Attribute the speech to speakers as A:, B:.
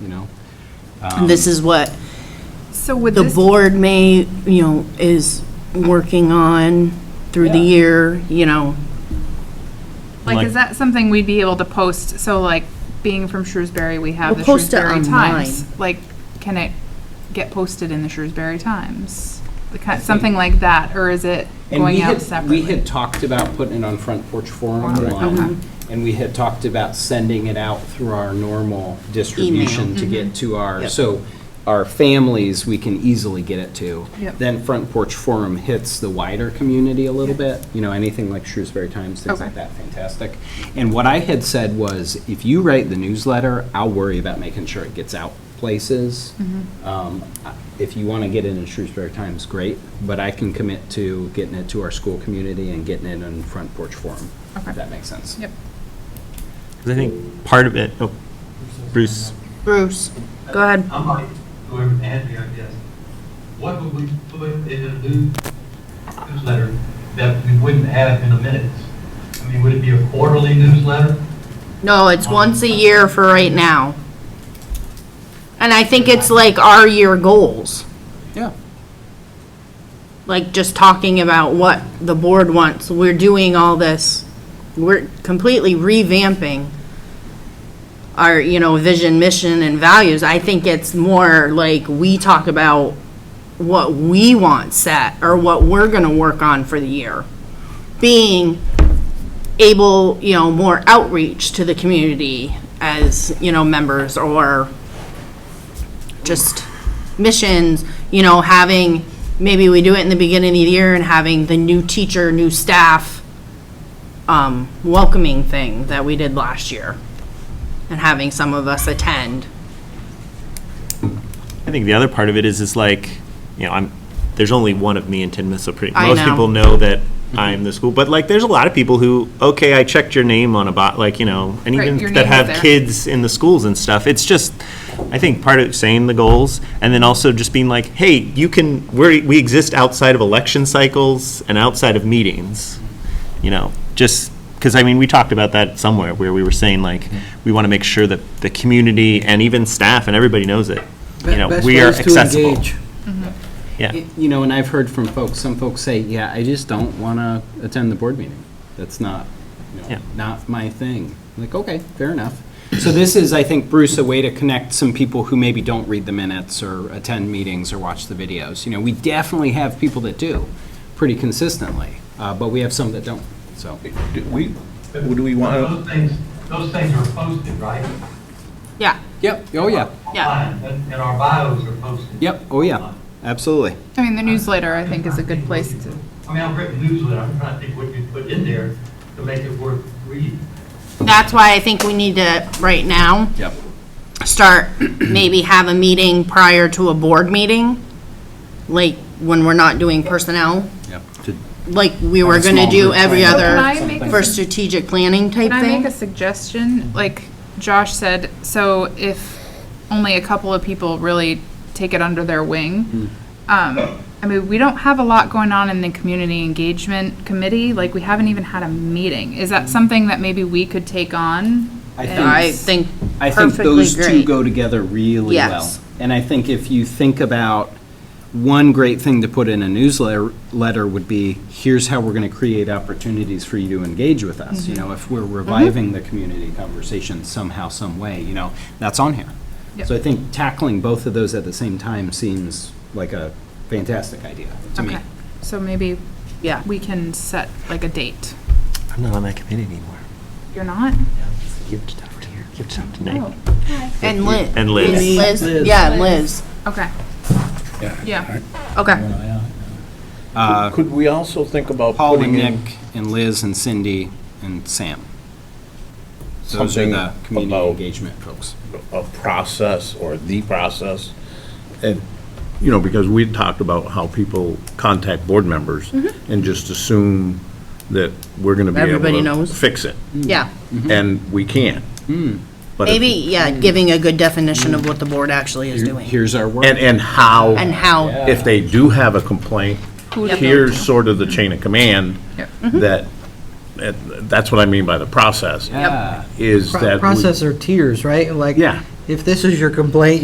A: you know?
B: And This is what
C: So would
B: the
C: this,
B: board may, you know, is working on through the
A: Yeah.
B: year, you know.
C: like, is that something we'd be able to post? So like, being from Shrewsbury, we have the
B: We'll post it
C: Shrewsbury
B: online.
C: Times. Like, can it get posted in the Shrewsbury Times? The ki- Something like that, or is it
A: And we
C: going
A: had-
C: out separately?
A: We had talked about putting it on Front Porch Forum online, and we had talked about sending it out through our normal distribution to
C: Mm-hmm.
A: get to our,
B: Yep.
A: so our families, we can easily get it to.
C: Yep.
A: Then Front Porch Forum hits the wider community a little bit, you know, anything like Shrewsbury Times, things like
C: Okay.
A: that, fantastic. And what I had said was, if you write the newsletter, I'll worry about making sure it gets out places.
C: Mm-hmm.
A: Um, I- If you want to get it in Shrewsbury Times, great, but I can commit to getting it to our school community and getting it in Front Porch Forum,
C: Okay.
A: if that makes sense.
C: Yep.
D: 'Cause I think part of it, oh, Bruce,
B: Bruce, go ahead.
E: I'm like, whoever had me, I guess. What would we put in a new newsletter that we wouldn't have in the minutes? I mean, would it be a quarterly newsletter?
B: No, it's once a year for right now. And I think it's like our year goals,
A: Yeah.
B: like just talking about what the board wants. We're doing all this, we're completely revamping our, you know, vision, mission, and values. I think it's more like we talk about what we want set or what we're gonna work on for the year. Being able, you know, more outreach to the community as, you know, members or just missions, you know, having, maybe we do it in the beginning of the year and having the new teacher, new staff, um, welcoming thing that we did last year and having some of us attend.
D: I think the other part of it is, is like, you know, I'm, there's only one of me in Tinmouth, so pretty,
B: I
D: most
B: know.
D: people know that I'm the school, but like, there's a lot of people who, okay, I checked your name on a bot, like, you know, and
C: Right,
D: even
C: your
D: that
C: name was
D: have
C: there.
D: kids in the schools and stuff. It's just, I think part of saying the goals, and then also just being like, hey, you can, we're, we exist outside of election cycles and outside of meetings, you know, just, because I mean, we talked about that somewhere, where we were saying like, we want to make sure that the community and even staff and everybody knows it. You know,
A: Best
D: we are
A: ways to
D: accessible.
A: engage.
C: Mm-hmm.
D: Yeah.
A: Y- You know, and I've heard from folks, some folks say, yeah, I just don't want to attend the board meeting. That's not, you know,
D: Yeah.
A: not my thing. I'm Like, okay, fair enough. So this is, I think, Bruce, a way to connect some people who maybe don't read the minutes or attend meetings or watch the videos. You know, we definitely have people that do pretty consistently, uh, but we have some that don't, so.
F: Do we, do we
E: Those things, those things are posted, right?
B: Yeah,
A: Yep, oh, yeah,
B: Yeah.
E: Online, And and our bios are posted.
A: yep, oh, yeah, absolutely.
C: I mean, the newsletter, I think, is a good place to,
E: I mean, I've written newsletter, I'm trying to think what you put in there to make it worth reading.
B: that's why I think we need to, right now,
A: Yep.
B: start, maybe have a meeting prior to a board meeting, like when we're not doing personnel,
A: Yep.
B: like we were
A: Like a
B: gonna
A: small
B: do
A: group
B: every
A: plan.
C: So can
B: other,
C: I make a
B: for strategic planning type
C: Can I make
B: thing.
C: a suggestion? Like Josh said, so if only a couple of people really take it under their wing, um, I mean, we don't have a lot going on in the community engagement committee. Like, we haven't even had a meeting. Is that something that maybe we could take on?
A: I
C: And-
A: think-
B: I think
A: I think
B: perfectly
A: those two
B: great.
A: go together really well.
B: Yes.
A: And I think if you think about, one great thing to put in a newsletter letter would be, here's how we're going to create opportunities for you to engage with us.
B: Mm-hmm.
A: You know, if we're reviving the community conversation somehow, some way, you know, that's on here.
C: Yep.
A: So I think tackling both of those at the same time seems like a fantastic idea to me.
C: Okay, so maybe
B: Yeah.
C: we can set like a date.
D: I'm not on that committee anymore.
C: You're not?
D: Give it over here. Give it over to
C: Oh,
D: Nate.
B: And Liz.
D: And Liz.
B: Liz, yeah, Liz.
C: okay. Yeah,
B: Okay,
F: Could we also think about
A: Paul and
F: putting in
A: Nick and Liz and Cindy and Sam. Those are
F: something
A: the community
F: about
A: engagement folks.
F: a process or the process? And, you know, because we talked about how people contact board members and just assume that we're going to be able
B: Mm-hmm. Everybody
F: to
B: knows.
F: fix it,
B: yeah.
A: Hmm. Mm-hmm.
F: and we can't.
A: Mm.
F: But if-
B: Maybe, yeah, giving a good definition of what the board actually is doing
A: Here's our work.
F: And, and how.
B: and how,
F: if they do have a complaint,
C: Who to go
F: here's sort of the chain of command
C: Yep.
F: that, that- that's what I mean by the process,
A: Yeah.
F: is that. we-
G: Process are tiers, right? Like,
F: Yeah.
A: if this is your complaint,